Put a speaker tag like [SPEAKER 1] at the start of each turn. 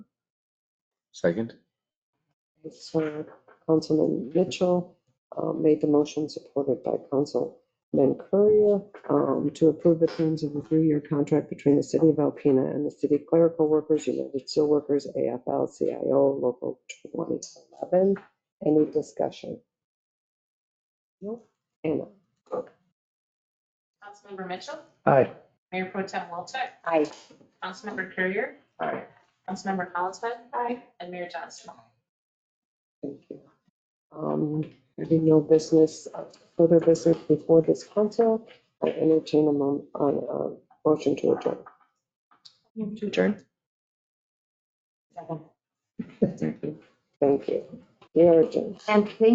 [SPEAKER 1] Second?
[SPEAKER 2] So Councilman Mitchell uh, made the motion supported by Councilman Currier um, to approve the terms of the three-year contract between the city of Alpena and the city clerical workers, United Steelworkers, AFL-CIO, Local 2011. Any discussion? Nope. Anna?
[SPEAKER 3] Councilmember Mitchell,
[SPEAKER 4] Aye.
[SPEAKER 3] Mayor Pro Tem Walczak,
[SPEAKER 2] Aye.
[SPEAKER 3] Councilmember Courier,
[SPEAKER 4] Aye.
[SPEAKER 3] Councilmember Collinsman,
[SPEAKER 2] Aye.
[SPEAKER 3] and Mayor Johnston.
[SPEAKER 2] Thank you. Um, Having no business, uh, further business before this council, I entertain a mo- uh, uh, motion to adjourn.
[SPEAKER 1] To adjourn?
[SPEAKER 2] Thank you. We are adjourned.
[SPEAKER 5] And please